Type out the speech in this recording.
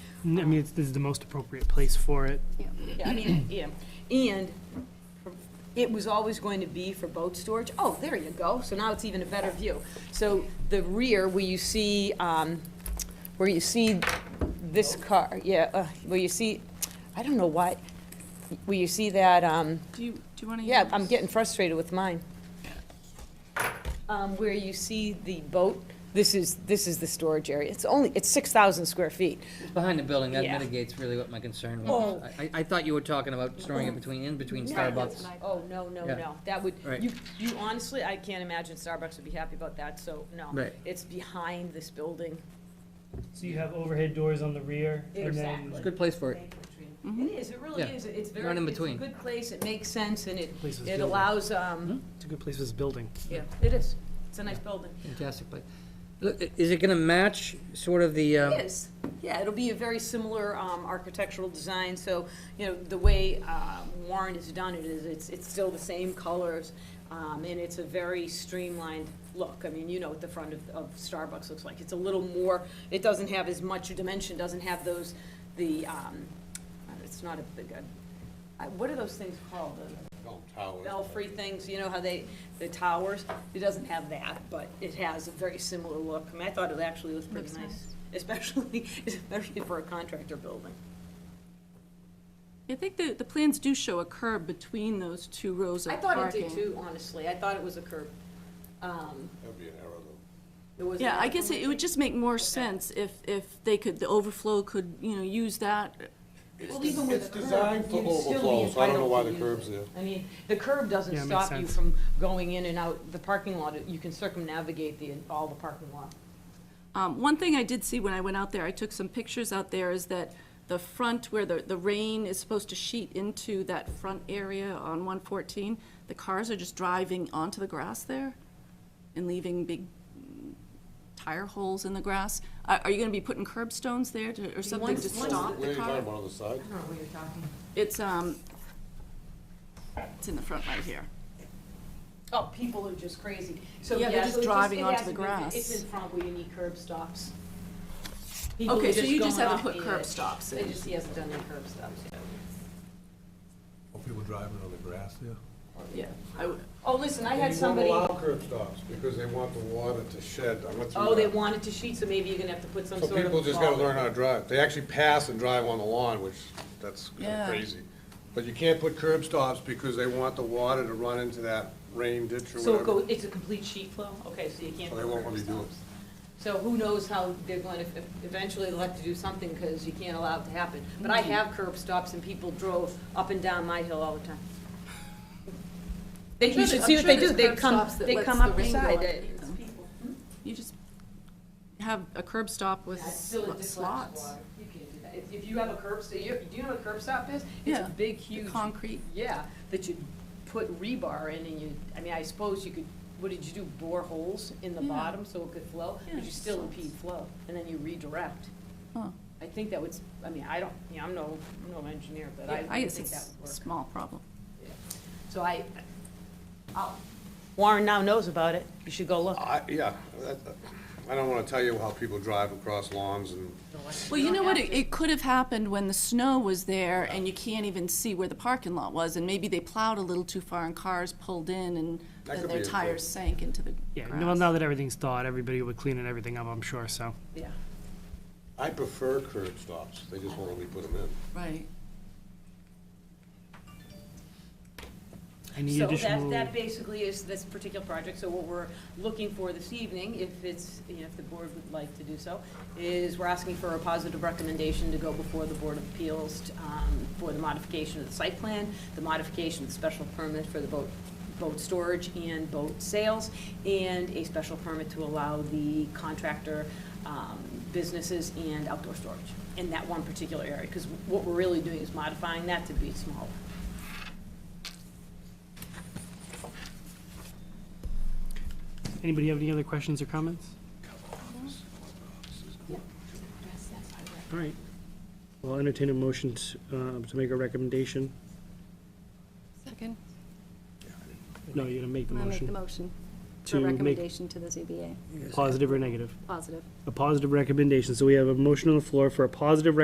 N- I mean, it's- this is the most appropriate place for it. Yeah, I mean, yeah, and it was always going to be for boat storage. Oh, there you go, so now it's even a better view. So the rear, where you see, um, where you see this car, yeah, uh, where you see, I don't know why, where you see that, um, Do you, do you want to? yeah, I'm getting frustrated with mine. Um, Where you see the boat, this is, this is the storage area. It's only, it's 6,000 square feet. It's behind the building, that Yeah. mitigates really what my concern was. Oh. I, I thought you were talking about storing it between, in between No, Starbucks. Oh, no, no, Yeah. no, that would, Right. you, you honestly, I can't imagine Starbucks would be happy about that, so, no. Right. It's behind this building. So you have overhead doors on the rear, and then Exactly. It's a good place for it. It is, it really Yeah. is, it's very, Not in it's a between. Hmm? good place, it makes sense, and it, Place is it building. allows, um, it's a good place for this building. yeah, it is, it's a nice building. Fantastic place. Look, i- is it gonna match sort of the, um, It is, yeah, it'll be a very similar, um, architectural design, so, you know, the way, uh, Warren has done it is, it's, it's still the same colors, um, and it's a very streamlined look, I mean, you know what the front of, of Starbucks looks like, it's a little more, it doesn't have as much dimension, doesn't have those, the, um, uh, it's not a big, uh, I- what are those things called? The belfry things, you know how they, the towers, it doesn't have that, but it has a very similar look. I mean, I thought it actually was pretty Looks nice, especially, especially for a contractor building. I think the, the plans do show a curb between those two rows I of thought parking. it did too, honestly, I thought it was a curb. Um, That'd be an arrow though. it was. Yeah, I guess it it would just make more sense if, if they could, the overflow could, you know, use that. Well, even with It's a curb, designed for you'd still be overflow, so I don't know why the entitled to curb's use there. it. I mean, the curb doesn't Yeah, it makes stop you sense. from going in and out, the parking lot, you can circumnavigate the, all the parking lot. Um, One thing I did see when I went out there, I took some pictures out there, is that the front where the, the rain is supposed to sheet into that front area on 114, the cars are just driving onto the grass there and leaving big mm, tire holes in the grass. Are are you going to be putting curb stones there to- or something once- to once stop What are the you talking car? about on the side? I don't know what you're talking. It's, um, it's in the front right here. Oh, people are just crazy. So Yeah, they're just so it driving it onto hasn't the been- grass. It's in front where you need curb stops. People Okay, are so you just going haven't off put the curb edge. stops They in. just, he hasn't done any curb stops yet. Are people driving on the grass there? Yeah, I would, Oh, listen, I had somebody, They won't allow curb stops because they want the water to shed. I went through oh, they that. wanted to sheet, so maybe you're gonna have to put some sort So of. people just gotta wall. learn how to drive. They actually pass and drive on the lawn, which, that's kinda Yeah. crazy. But you can't put curb stops because they want the water to run into that rain ditch or So it whatever. goes, it's a complete sheet flow? Okay, so you can't put So they won't let curb me do it. stops. So who knows how they're going to, eventually they'll have to do something because you can't allow it to happen. But I have curb stops and people drove up and down my hill all the time. They, sure you should there's- see I'm what sure they do, there's they curb come, stops that they lets come the up the rain go side. on. They- It's you just have a curb stop with I still sl- dislike slots. water. You can't do that. If- If you have a curb, st- you, do you know what a curb stop is? It's Yeah, a big, the huge. concrete. Yeah, that you put rebar in and you, I mean, I suppose you could, what did you do, bore holes in the Yeah. bottom so it could flow? But Yeah, you still slots. impede flow, and then you redirect. Huh. I think that would, s- I mean, I don't, you know, I'm no, I'm no engineer, but I I would guess think it's that a would work. small problem. Yeah. So I, I'll- Warren now knows about it. You should go look. I, yeah, that- I don't wanna tell you how people drive across lawns and Well, you know what, it, it could have happened when the snow was there Oh. and you can't even see where the parking lot was, and maybe they plowed a little too far and cars pulled in and That then could their be it, too. tires sank into the Yeah, grass. well, now that everything's thawed, everybody would clean and everything up, I'm sure, so. Yeah. I prefer curb stops. They just won't let me put them in. Right. Any So that, additional, that basically is this particular project, so what we're looking for this evening, if it's, you know, if the board would like to do so, is we're asking for a positive recommendation to go before the Board of Appeals um, for the modification of the site plan, the modification of the special permit for the boat, boat storage and boat sales, and a special permit to allow the contractor um, businesses and outdoor storage in that one particular area, because what we're really doing is modifying that to be smaller. anybody have any other questions or comments? All right. Well, I'll entertain a motion to, um, to make a recommendation. Second. No, you're gonna make the I'm gonna make the motion. motion for To make recommendation to the ZBA, positive or negative. positive. A positive recommendation. So we have a motion on the floor for a positive recommendation